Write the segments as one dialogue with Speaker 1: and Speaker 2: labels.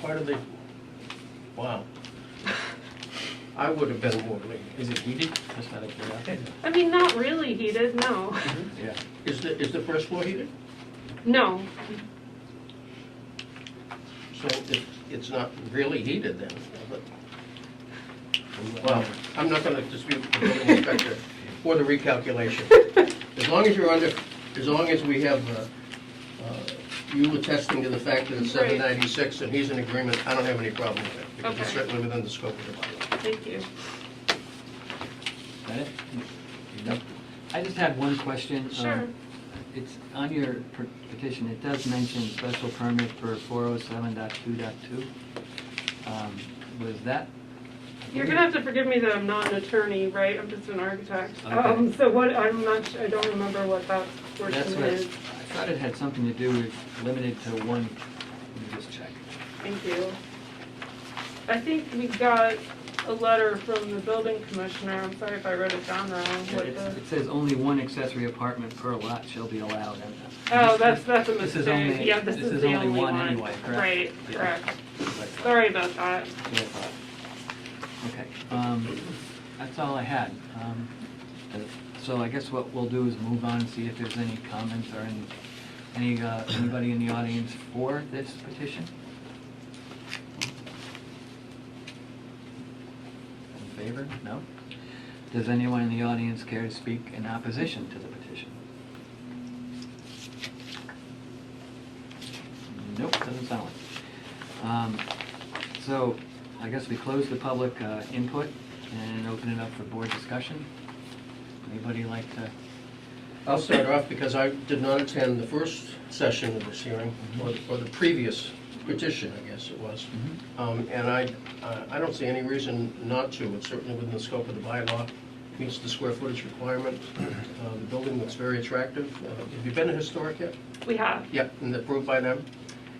Speaker 1: part of the, wow. I would have been more late. Is it heated? Just out of curiosity.
Speaker 2: I mean, not really heated, no.
Speaker 3: Mm-hmm.
Speaker 1: Yeah. Is the, is the first floor heated?
Speaker 2: No,
Speaker 1: So it, it's not really heated then? but- Well, I'm not gonna dispute the building inspector for the recalculation. As long as you're under, as long as we have, uh, uh, you attesting to the fact that it's
Speaker 2: Right.
Speaker 1: seven ninety-six and he's in agreement, I don't have any problem with it. Because it's
Speaker 2: Okay.
Speaker 1: certainly within the scope of the bylaw.
Speaker 2: thank you.
Speaker 3: Got it? Yep. I just had one question. Um,
Speaker 2: Sure.
Speaker 3: It's on your per- petition, it does mention special permit for 407.2.2. Um, Was that?
Speaker 2: You're gonna have to forgive me that I'm not an attorney, right? I'm just an architect.
Speaker 3: Okay.
Speaker 2: Um, so what, I'm not, su- I don't remember what that
Speaker 3: That's
Speaker 2: portion
Speaker 3: what, I
Speaker 2: is.
Speaker 3: thought it had something to do with limited to one, let me just check.
Speaker 2: Thank you. I think we got a letter from the building commissioner. I'm sorry if I wrote it down wrong.
Speaker 3: Yeah,
Speaker 2: What
Speaker 3: it's-
Speaker 2: the-
Speaker 3: It says only one accessory apartment per lot shall be allowed. and-
Speaker 2: Oh, that's, that's a
Speaker 3: This is
Speaker 2: mistake.
Speaker 3: only-
Speaker 2: Yeah, this is the only one.
Speaker 3: anyway, correct?
Speaker 2: Right,
Speaker 3: Yeah.
Speaker 2: correct.
Speaker 3: That's what I thought.
Speaker 2: Sorry about that.
Speaker 3: Yeah, but- Okay, um, that's all I had. Um, uh, So I guess what we'll do is move on and see if there's any comments or any, any, uh, anybody in the audience for this petition? In favor? No? Does anyone in the audience care to speak in opposition to the petition? Nope, doesn't sound like it. Um, So I guess we close the public uh, input and open it up for board discussion. Anybody like to?
Speaker 1: I'll start off because I did not attend the first session of this hearing, or, or the previous petition, I guess it was. Um, And I, I- I don't see any reason not to, it's certainly within the scope of the bylaw, meets the square footage requirement. Uh, The building looks very attractive. Uh, Have you been to Historic yet?
Speaker 2: We have.
Speaker 1: Yep, and approved by them?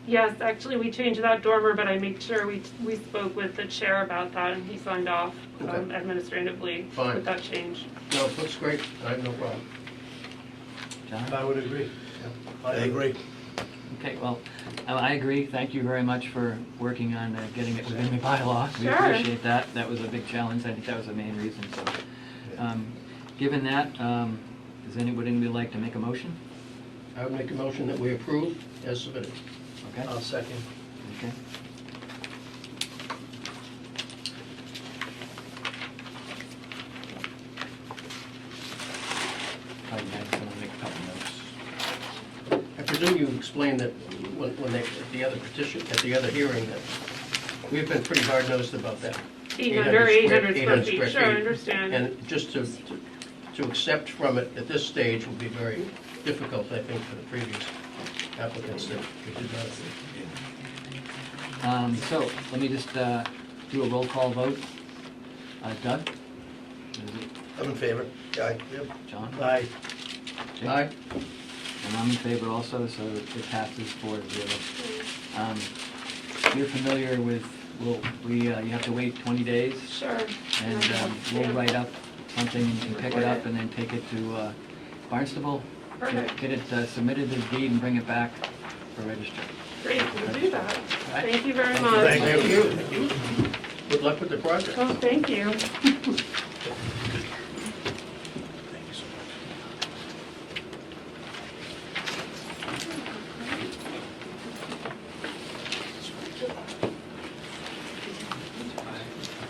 Speaker 2: Yes, actually, we changed that dormer, but I made sure we, we spoke with the chair about that, and he signed off um,
Speaker 1: Okay.
Speaker 2: administratively
Speaker 1: Fine.
Speaker 2: with that change.
Speaker 1: No, it looks great, I have no problem.
Speaker 3: John?
Speaker 4: I would agree. I agree.
Speaker 3: Okay, well, I- I agree. Thank you very much for working on uh, getting it within the bylaw. We
Speaker 2: Sure.
Speaker 3: appreciate that. That was a big challenge. I think that was the main reason, so. um, Given that, um, does anybody would like to make a motion?
Speaker 1: I would make a motion that we approve as submitted.
Speaker 3: Okay?
Speaker 4: I'll second.
Speaker 3: Okay. Probably nice to make a couple notes.
Speaker 1: I presume you explained that when, when they, at the other petition, at the other hearing, that we've been pretty hard-nosed about that.
Speaker 2: 800, 800 square
Speaker 1: 800
Speaker 2: feet,
Speaker 1: square
Speaker 2: sure, I
Speaker 1: feet.
Speaker 2: understand.
Speaker 1: And just to, to- to accept from it at this stage would be very difficult, I think, for the previous applicants that we did not.
Speaker 3: Um, So let me just uh, do a roll call vote. Uh, Doug? Is it
Speaker 4: I'm in favor. Aye.
Speaker 3: John?
Speaker 1: Uh,
Speaker 4: Aye.
Speaker 3: Jake? And I'm in favor also, so it passes four to zero. Um, You're familiar with, well, we, uh, you have to wait 20 days
Speaker 2: Sure.
Speaker 3: And um, we'll
Speaker 2: Yeah.
Speaker 3: write up something, you can pick it up and then take it to uh, Barnstable. get-
Speaker 2: Perfect.
Speaker 3: Get it uh, submitted as deed and bring it back for registry.
Speaker 2: Great, we'll do that.
Speaker 3: right.
Speaker 2: Thank you very much.
Speaker 3: Thank you.
Speaker 1: Thank you. Good luck with the project.
Speaker 2: Oh, thank you.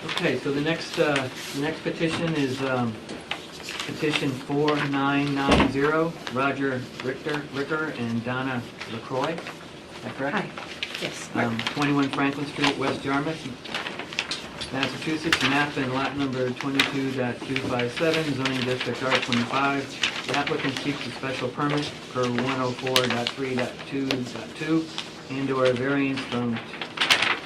Speaker 3: Okay, so the next, uh, the next petition is um, petition 4990, Roger Richter, Ricker and Donna LaCroix. Is that correct?
Speaker 5: Hi, yes.
Speaker 3: Um, 21 Franklin Street, West Yarmouth, Massachusetts, map and lot number 22.257, zoning district R25. The applicant seeks a special permit per 104.3.2.2 and/or a variance from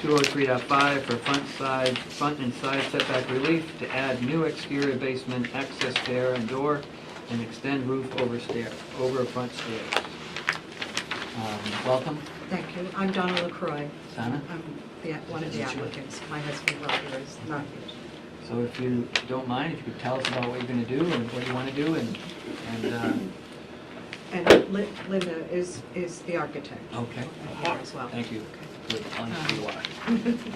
Speaker 3: 203.5 for front side, front and side setback relief to add new exterior basement access stair and door and extend roof over stair, over front stairs. Um, Welcome,
Speaker 5: Thank you. I'm Donna LaCroix.
Speaker 3: Sana.
Speaker 5: I'm the, one of the applicants. My husband Roger is not here.
Speaker 3: So if you don't mind, if you could tell us about what you're gonna do and what you wanna do and, and, uh,
Speaker 5: And Li- Linda is, is the architect
Speaker 3: okay,
Speaker 5: here as well.
Speaker 3: thank you.
Speaker 5: Okay.
Speaker 3: with on tree lot.